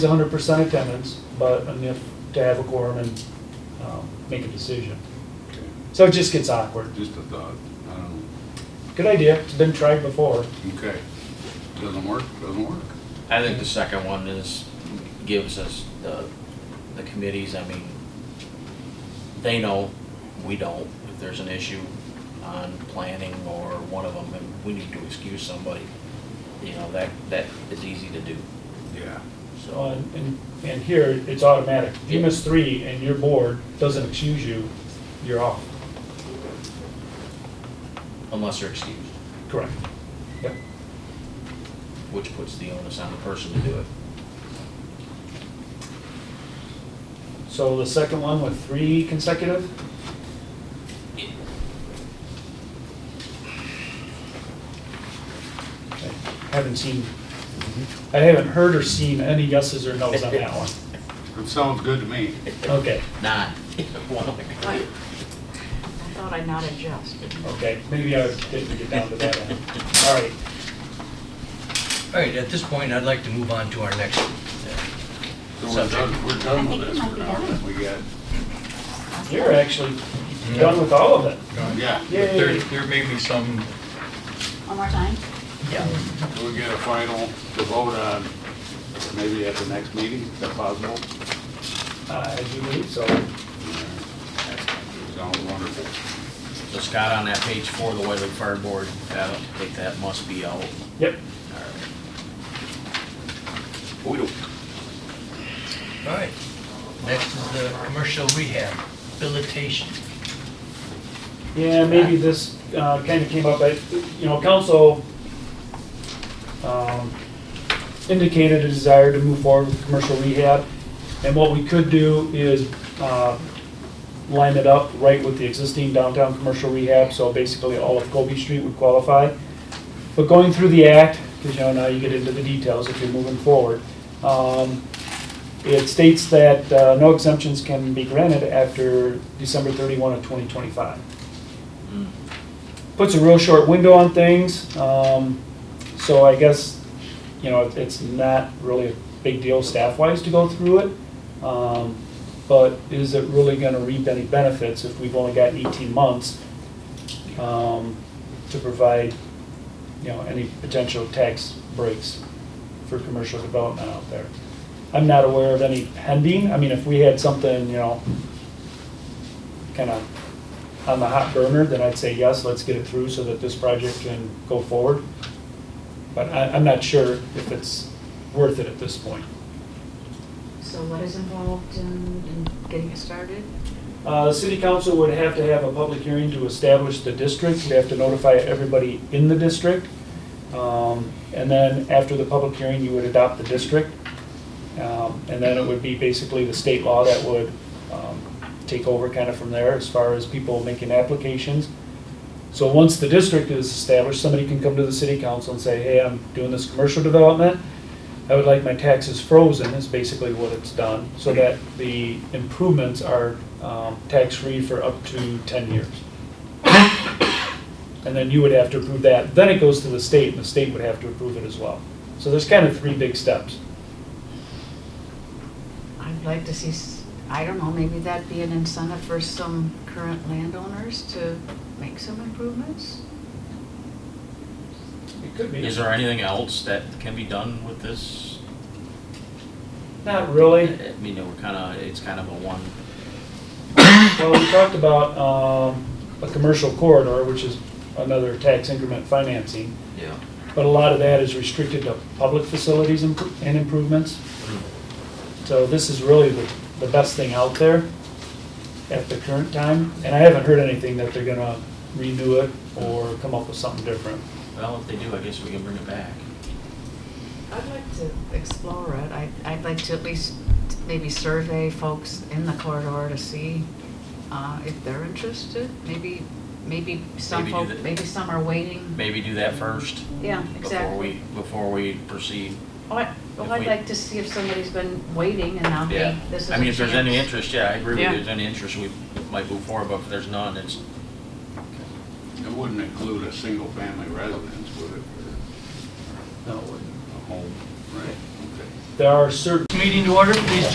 It's hundred percent attendance, but enough to have a quorum and um, make a decision. Okay. So it just gets awkward. Just a thought, I don't Good idea, it's been tried before. know, okay. Doesn't work, doesn't work. I think the second one is, gives us the, the committees, I mean, they know, we don't, if there's an issue on planning or one of them, and we need to excuse somebody, you know, that, that is easy to do, Yeah. So, so. and- and, and here, it's automatic. If you Yeah. miss three and your board doesn't excuse you, you're off. Unless they're excused, Correct. Yep. which puts the onus on the person to do it. So the second one with three consecutive? I Haven't seen, I haven't heard or seen any yeses or nos on that one. It sounds good to me. Okay, Not one of I the. thought I nodded yes, but okay, maybe I didn't get down to that end. All right, All right, at this point, I'd like to move on to our next. So we're done, we're I done think with it this might for be now. done. We got, you're actually done with all of it. yeah, But There, Yay. there may be some, One more time? yeah, so we get a final to vote on, maybe at the next meeting, is that possible? I do believe so. Sounds wonderful. So Scott, on that page four, the White Lake Fire Board, uh, I think that must be out. Yep, We don't. all right. Next is the commercial rehab habilitation. Yeah, maybe this kind of came up, but, you know, council um, indicated a desire to move forward with commercial rehab. And what we could do is uh, line it up right with the existing downtown commercial rehab, so basically all of Colby Street would qualify. But going through the act, because you know, now you get into the details if you're moving forward, um, it states that uh, no exemptions can be granted after December 31 of 2025 Hmm. puts a real short window on things. Um, so I guess, you know, it- it's not really a big deal staff-wise to go through it. Um, but is it really gonna reap any benefits if we've only got eighteen months, um, to provide, you know, any potential tax breaks for commercial development out there? I'm not aware of any pending. I mean, if we had something, you know, kind of on the hot burner, then I'd say yes, let's get it through so that this project can go forward. But I, I'm not sure if it's worth it at this point. so what is involved in, in getting it started? Uh, the city council would have to have a public hearing to establish the district, we have to notify everybody in the district. Um, and then after the public hearing, you would adopt the district. Um, and then it would be basically the state law that would, um, take over kind of from there as far as people making applications. So once the district is established, somebody can come to the city council and say, hey, I'm doing this commercial development. I would like my taxes frozen, is basically what it's done, so that the improvements are um, tax-free for up to 10 years. And then you would have to approve that. Then it goes to the state, and the state would have to approve it as well. So there's kind of three big steps. I'd like to see, s- I don't know, maybe that'd be an incentive for some current landowners to make some improvements? It could be. Is there anything else that can be done with this? Not really. I mean, we're kind of, it's kind of a one, Well, we talked about um, a commercial corridor, which is another tax increment financing, yeah. but a lot of that is restricted to public facilities and and improvements. So this is really the, the best thing out there at the current time, and I haven't heard anything that they're gonna renew it or come up with something different. Well, if they do, I guess we can bring it back. I'd like to explore it. I, I'd like to at least maybe survey folks in the corridor to see uh, if they're interested. Maybe, maybe some Maybe do folk, the- maybe some are waiting. Maybe do that first Yeah, before exactly. we, before we proceed. Oh, I- Well, if I'd we- like to see if somebody's been waiting and now, hey, Yeah. this is I mean, if there's a any chance. interest, yeah, I agree with you. Yeah. If there's any interest, we might move forward, but if there's none, it's, It wouldn't include a single-family residence, would it? No, it wouldn't. A home, right, okay. there are certain Meeting to order, please